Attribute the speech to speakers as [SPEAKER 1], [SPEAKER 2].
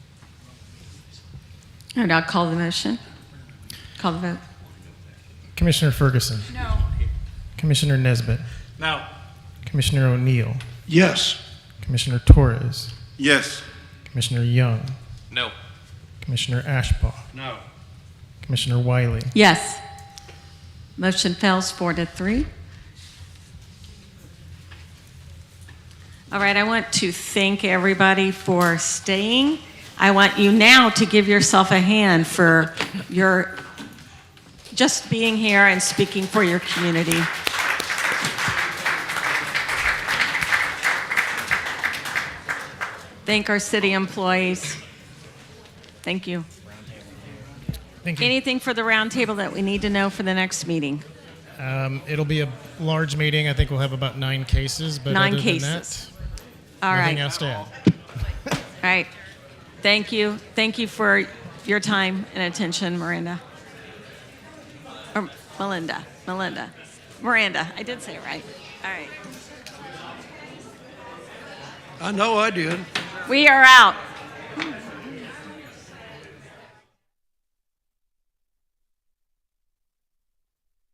[SPEAKER 1] All right, I'll call the motion. Call the vote.
[SPEAKER 2] Commissioner Ferguson. No. Commissioner Nesbitt.
[SPEAKER 3] No.
[SPEAKER 2] Commissioner O'Neill.
[SPEAKER 4] Yes.
[SPEAKER 2] Commissioner Torres.
[SPEAKER 4] Yes.
[SPEAKER 2] Commissioner Young.
[SPEAKER 3] No.
[SPEAKER 2] Commissioner Ashbaugh.
[SPEAKER 3] No.
[SPEAKER 2] Commissioner Wiley.
[SPEAKER 1] Yes. Motion fails four to three. All right, I want to thank everybody for staying. I want you now to give yourself a hand for your just being here and speaking for your community. Thank our city employees. Thank you.
[SPEAKER 2] Thank you.
[SPEAKER 1] Anything for the roundtable that we need to know for the next meeting?
[SPEAKER 2] Um, it'll be a large meeting. I think we'll have about nine cases. But
[SPEAKER 1] Nine
[SPEAKER 2] other Than
[SPEAKER 1] cases.
[SPEAKER 2] that,
[SPEAKER 1] All
[SPEAKER 2] nothing
[SPEAKER 1] right, all
[SPEAKER 2] else to add.
[SPEAKER 1] right. Thank you. Thank you for your time and attention, Miranda. Or Melinda, Melinda. Miranda, I did say it right. All right.
[SPEAKER 4] I know I did.
[SPEAKER 1] We are out.